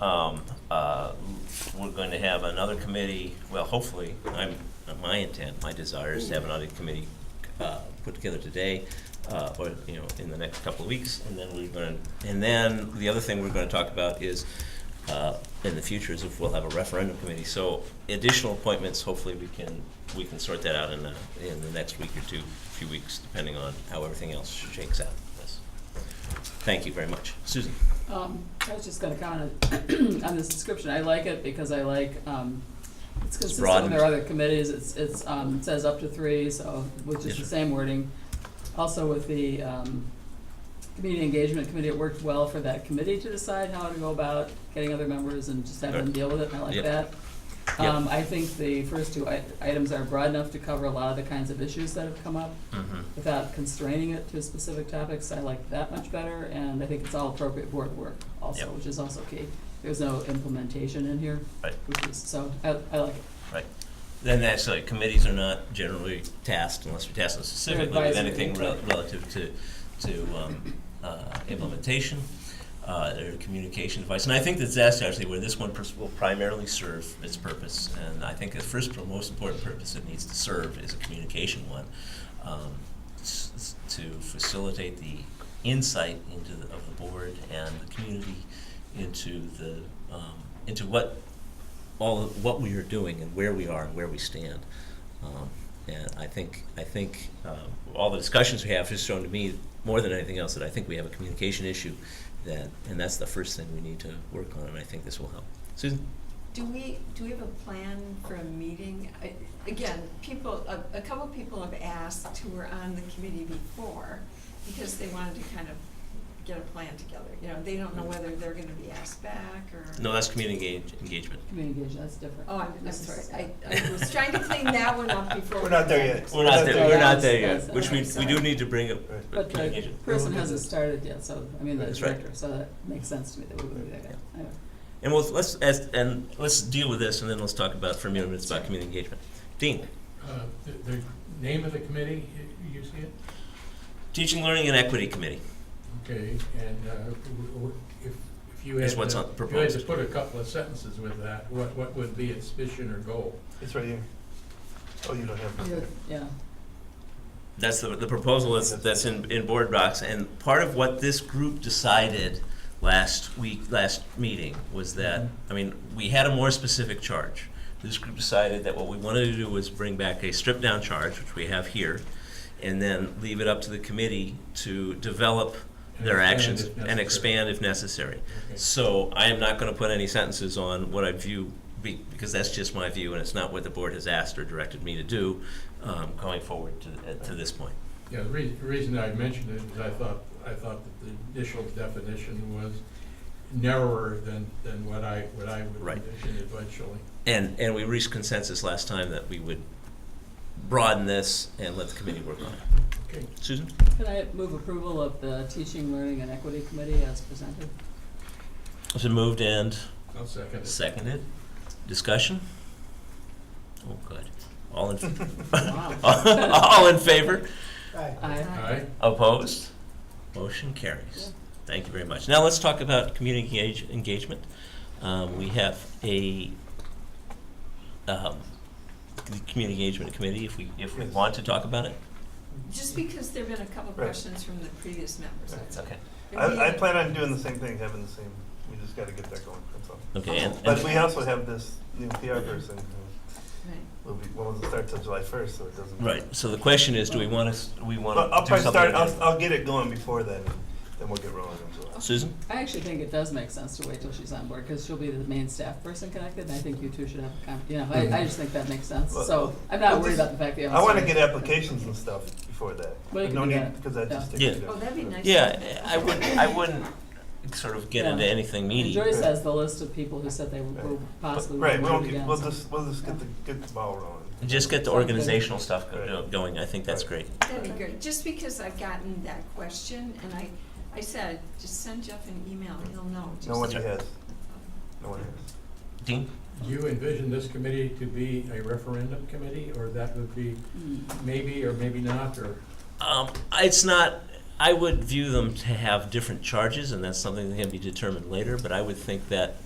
Um, uh, We're going to have another committee, well, hopefully, I'm, my intent, my desire is to have another committee uh, put together today, uh, or, you know, in the next couple of weeks, and then we're going to, and then the other thing we're going to talk about is, uh, in the future, is if we'll have a referendum committee. So additional appointments, hopefully, we can, we can sort that out in the, in the next week or two, few weeks, depending on how everything else shakes out. Yes. Thank you very much. Susan? Um, I was just gonna comment on this description, I like it because I like, um, it's consistent with broadened. our other committees, it's, it's, um, it says up to three, so, which Yes, is the sir. same wording. Also with the, um, community engagement committee, it worked well for that committee to decide how to go about getting other members and just have them Right. deal with it, I like Yep. that. Yep. Um, I think the first two i- items are broad enough to cover a lot of the kinds of issues that have come up Mm-hmm. without constraining it to specific topics, I like that much better, and I think it's all appropriate board work also, Yep. which is also key. There's no implementation in here, Right. which is, so, I, I like it. Right. Then that's like, committees are not generally tasked unless we task them specifically with advisory. anything rel- relative to, to um, uh, implementation, uh, or communication advice. And I think that's that's actually where this one pers- will primarily serve its purpose. And I think the first, and most important purpose it needs to serve is a communication one, um, s- s- to facilitate the insight into, the- of the board and the community into the, um, into what all of what we are doing and where we are and where we stand. Um, and I think I think um, all the discussions we have has shown to me more than anything else that I think we have a communication issue that and that's the first thing we need to work on and I think this will help. Susan, Do we, do we have a plan for a meeting? I- Again, people, a, a couple people have asked who were on the committee before because they wanted to kind of get a plan together. You know, they don't know whether they're gonna be asked back or. no, that's community engage, engagement. Community engagement, that's different. Oh, I'm, I'm This is- sorry. I, I was trying to clean that one up before. We're not there yet. We're not there. We're not there Yes, yet. Which we, we do need to bring up. uh, Right. But the communication. person hasn't started yet, so, I mean, the That's right. director, so that makes sense to me that we would do that. Anyway. And we'll, let's as, and let's deal with this and then let's talk about for a minute it's about community engagement. Dean, Uh, The the name of the committee, y- you see it? teaching, learning, and equity committee. Okay, and uh, w- w- if if you had. Is what's to- on- if You had to proposed. put a couple of sentences with that, what, what would be its mission or goal? It's right here. Oh, you don't have You're- it. Yeah, That's the, the proposal that's, that's in, in board docs, and part of what this group decided last week, last meeting, was that, Mm-hmm. I mean, we had a more specific charge. This group decided that what we wanted to do was bring back a stripped-down charge, which we have here, and then leave it up to the committee to develop And their expand actions if and necessary. expand if necessary. Okay. So I am not gonna put any sentences on what I view, be- because that's just my view, and it's not what the board has asked or directed me to do, um, going forward to, uh, to this point. Yeah, the rea- the reason I mentioned it is I thought, I thought that the initial definition was narrower than, than what I, what I would Right. envision eventually. And, and we reached consensus last time that we would broaden this and let the committee work on it. Okay, Susan? can I move approval of the teaching, learning, and equity committee as presented? It's been moved and I'll second it. seconded. Discussion? Oh, good. All in, Wow. all in favor? Aye. Aye, Opposed? Motion carries. Thank you very much. Now let's talk about community engage- engagement. Um, we have a, um, the community engagement committee, if we, if we want to talk about it. Just because there've been a couple Right. questions from the previous members, that's all. Okay. And we- I, I plan on doing the same thing, having the same, we just gotta get that going, that's all. Okay, and, But we and, also have this new PR person who Right. will be, well, it starts on July first, so it doesn't. right, so the question is, do we want to, do we want But I'll to do probably something? start, about it? I'll, I'll get it going before then, then we'll get rolling in July. Susan? I actually think it does make sense to wait till she's on board, because she'll be the main staff person connected, and I think you two should have a con, you know, I, I just think that makes sense, so, I'm not worried about the fact that you I haven't wanna started. get applications and stuff before that. Well, you No can do need- that. Cause that just takes. Yeah. it Oh, up. that'd be nice. Yeah, I wouldn't, I wouldn't sort of get into Yeah. anything And meaty. Joyce has the list of people who said they will possibly Right, would we'll, do it again. we'll so- just, we'll just get the, get the ball rolling. Just get the Sounds good. organizational stuff go- going, I think that's great. That'd be great, just because I've gotten that question, and I, I said, just send Jeff an email, he'll know. No one Just- has, no one has. Dean? do you envision this committee to be a referendum committee, or that would be Hmm. maybe or maybe not, or? Um, it's not, I would view them to have different charges, and that's something that can be determined later, but I would think that